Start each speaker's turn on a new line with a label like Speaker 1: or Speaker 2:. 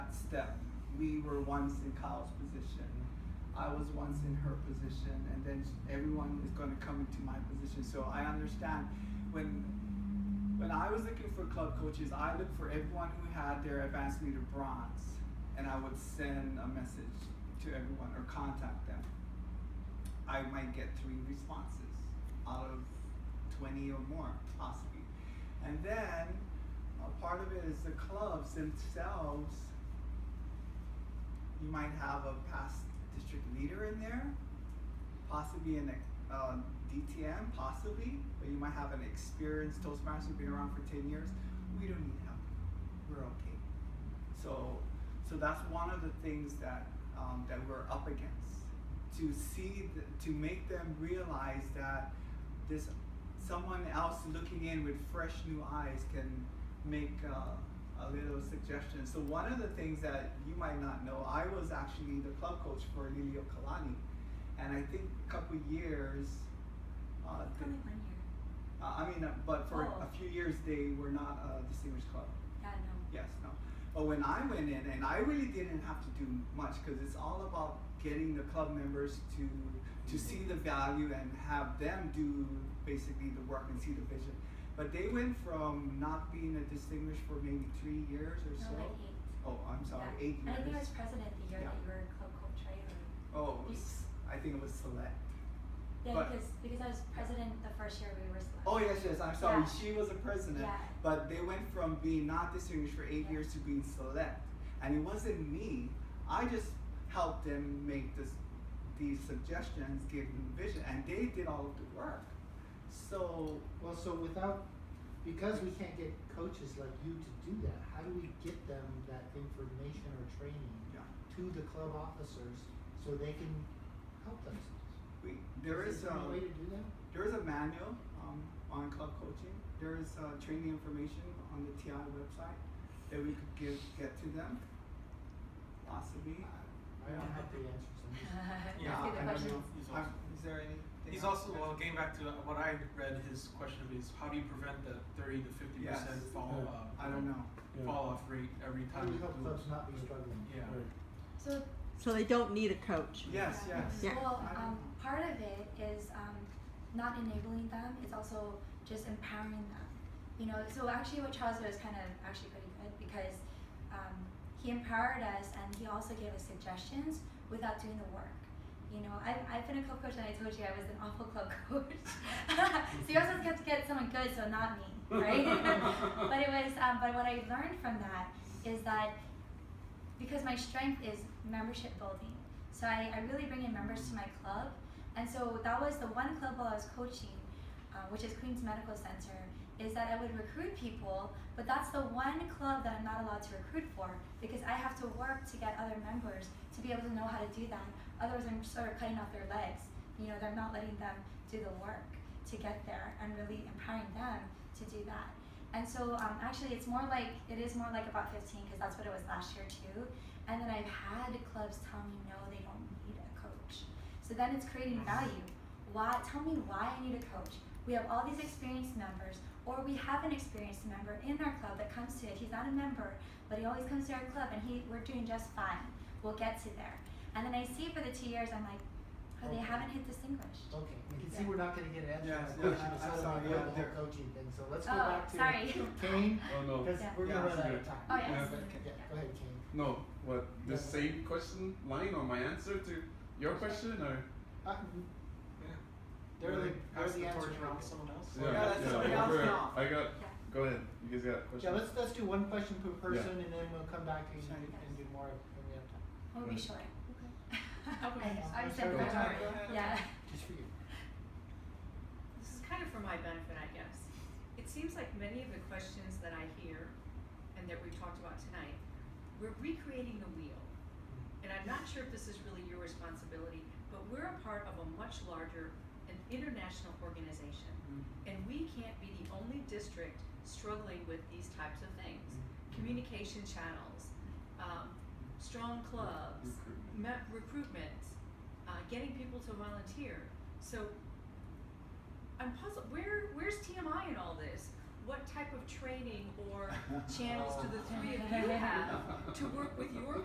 Speaker 1: step. We were once in Kyle's position. I was once in her position, and then everyone is going to come into my position. So I understand when when I was looking for club coaches, I looked for everyone who had their advanced leader bronze, and I would send a message to everyone or contact them. I might get three responses out of 20 or more, possibly. And then a part of it is the clubs themselves. You might have a past district leader in there, possibly an uh, DTM, possibly, but you might have an experienced Toastmaster who's been around for 10 years. We don't need help. We're okay. So, so that's one of the things that um, that we're up against to see th- to make them realize that this someone else looking in with fresh new eyes can make uh, a little suggestion. So one of the things that you might not know, I was actually the club coach for Lilio Kalani, and I think a couple years. Uh, the-
Speaker 2: Coming one year.
Speaker 1: uh, I mean, uh, but for
Speaker 2: Oh.
Speaker 1: a few years they were not a distinguished club.
Speaker 2: Yeah, no.
Speaker 1: Yes, no. But when I went in, and I really didn't have to do much because it's all about getting the club members to to see the value and have them do basically the work and see the vision. But they went from not being a distinguished for maybe three years or
Speaker 2: No,
Speaker 1: so.
Speaker 2: like eight.
Speaker 1: Oh, I'm sorry,
Speaker 2: Yeah.
Speaker 1: eight
Speaker 2: I think I
Speaker 1: years.
Speaker 2: was president the year
Speaker 1: Yeah.
Speaker 2: that you were club coach, right? Or-
Speaker 1: Oh, it was- I think it was select.
Speaker 2: Yeah,
Speaker 1: But-
Speaker 2: because, because I was president the first year we were selected.
Speaker 1: Oh yes, yes. I'm sorry.
Speaker 2: Yeah.
Speaker 1: She was a president,
Speaker 2: Yeah.
Speaker 1: but they went from being not distinguished for eight
Speaker 2: Yeah.
Speaker 1: years to being select, and it wasn't me. I just helped them make this, these suggestions, gave them vision, and they did all of the work. So
Speaker 3: Well, so without, because we can't get coaches like you to do that, how do we get them that information or training
Speaker 1: yeah,
Speaker 3: to the club officers so they can help themselves?
Speaker 1: we, there is um,
Speaker 3: there
Speaker 1: a
Speaker 3: any way to do that?
Speaker 1: there is a manual um, on club coaching. There is uh, training information on the TI website that we could give get to them, possibly.
Speaker 3: I don't have the answers. I'm just-
Speaker 2: Let's get
Speaker 4: Yeah,
Speaker 2: the
Speaker 1: I don't
Speaker 2: questions.
Speaker 1: know.
Speaker 4: He's
Speaker 1: I'm-
Speaker 4: also-
Speaker 1: Is there anything?
Speaker 4: He's
Speaker 1: else?
Speaker 4: also, well, getting back to what I read, his question is how do you prevent the 30 to 50%
Speaker 1: Yes.
Speaker 4: fall,
Speaker 1: I don't know.
Speaker 4: uh, fall off rate every
Speaker 3: How do
Speaker 4: time
Speaker 3: we
Speaker 4: it
Speaker 3: help
Speaker 4: moves?
Speaker 3: clubs not be struggling?
Speaker 4: Yeah.
Speaker 2: So
Speaker 5: So they don't need a coach.
Speaker 1: Yes,
Speaker 2: Yeah.
Speaker 1: yes.
Speaker 5: Yeah.
Speaker 2: Well,
Speaker 1: I don't
Speaker 2: um,
Speaker 1: know.
Speaker 2: part of it is um, not enabling them. It's also just empowering them. You know, so actually, what Charles did was kind of actually pretty good because um, he empowered us and he also gave us suggestions without doing the work. You know, I, I've been a club coach and I told you I was an awful club coach. so you also get to get someone good, so not me, right? but it was, um, but what I learned from that is that because my strength is membership building. So I, I really bring in members to my club. And so that was the one club while I was coaching, uh, which is Queens Medical Center, is that I would recruit people, but that's the one club that I'm not allowed to recruit for because I have to work to get other members to be able to know how to do that. Otherwise, I'm sort of cutting off their legs. You know, they're not letting them do the work to get there and really empowering them to do that. And so um, actually, it's more like it is more like about 15 because that's what it was last year too. And then I've had clubs tell me no, they don't need a coach. So then it's creating value. Why? Tell me why I need a coach. We have all these experienced members, or we have an experienced member in our club that comes to it. He's not a member, but he always comes to our club, and he we're doing just fine. We'll get to there. And then I see for the two years, I'm like, oh, they
Speaker 3: Okay.
Speaker 2: haven't hit distinguished.
Speaker 3: Okay, we can see
Speaker 2: Yeah.
Speaker 3: we're not gonna get an answer.
Speaker 1: Yes,
Speaker 3: to my
Speaker 1: yes,
Speaker 3: question,
Speaker 1: I'm
Speaker 3: so
Speaker 1: sorry,
Speaker 3: we
Speaker 1: yeah,
Speaker 3: have the whole
Speaker 1: there-
Speaker 3: coaching thing, so let's go
Speaker 2: Oh,
Speaker 3: back to
Speaker 2: sorry.
Speaker 3: Kane,
Speaker 6: Oh no.
Speaker 3: because
Speaker 2: Yeah.
Speaker 3: we're gonna
Speaker 1: Yeah.
Speaker 3: run out of time.
Speaker 2: Oh, yes.
Speaker 3: Yeah, go ahead, Kane.
Speaker 6: No, what the
Speaker 3: Yeah.
Speaker 6: same question line or my answer to your question or
Speaker 3: Uh,
Speaker 4: Yeah.
Speaker 3: They're
Speaker 4: Really
Speaker 3: like, they're
Speaker 4: pass
Speaker 3: the
Speaker 4: the
Speaker 3: answer.
Speaker 4: torch around to someone else?
Speaker 1: Yeah, that's somebody else
Speaker 6: over-
Speaker 1: now.
Speaker 6: I got
Speaker 2: Yeah.
Speaker 6: go ahead. You guys got
Speaker 3: Yeah,
Speaker 6: questions?
Speaker 3: let's, let's do one question per
Speaker 6: Yeah.
Speaker 3: person and then we'll come back and,
Speaker 1: Sorry.
Speaker 3: and do more when we have time.
Speaker 2: We'll be
Speaker 6: Right.
Speaker 2: short.
Speaker 7: Okay.
Speaker 2: I
Speaker 3: I'm
Speaker 2: said
Speaker 3: sorry.
Speaker 2: we're
Speaker 6: Go
Speaker 1: ahead.
Speaker 2: short.
Speaker 1: Go
Speaker 2: Yeah.
Speaker 1: ahead.
Speaker 3: Just for you.
Speaker 7: This is kind of for my benefit, I guess. It seems like many of the questions that I hear and that we've talked about tonight, we're recreating the wheel. And I'm not sure if this is really your responsibility, but we're a part of a much larger and international organization.
Speaker 1: Mm.
Speaker 7: And we can't be the only district struggling with these types of things. Communication channels, um, strong clubs,
Speaker 6: Recruitment.
Speaker 7: me- recruitment, uh, getting people to volunteer. So I'm puzzled. Where where's TMI in all this? What type of training or channels do the three of you have Uh, to work with your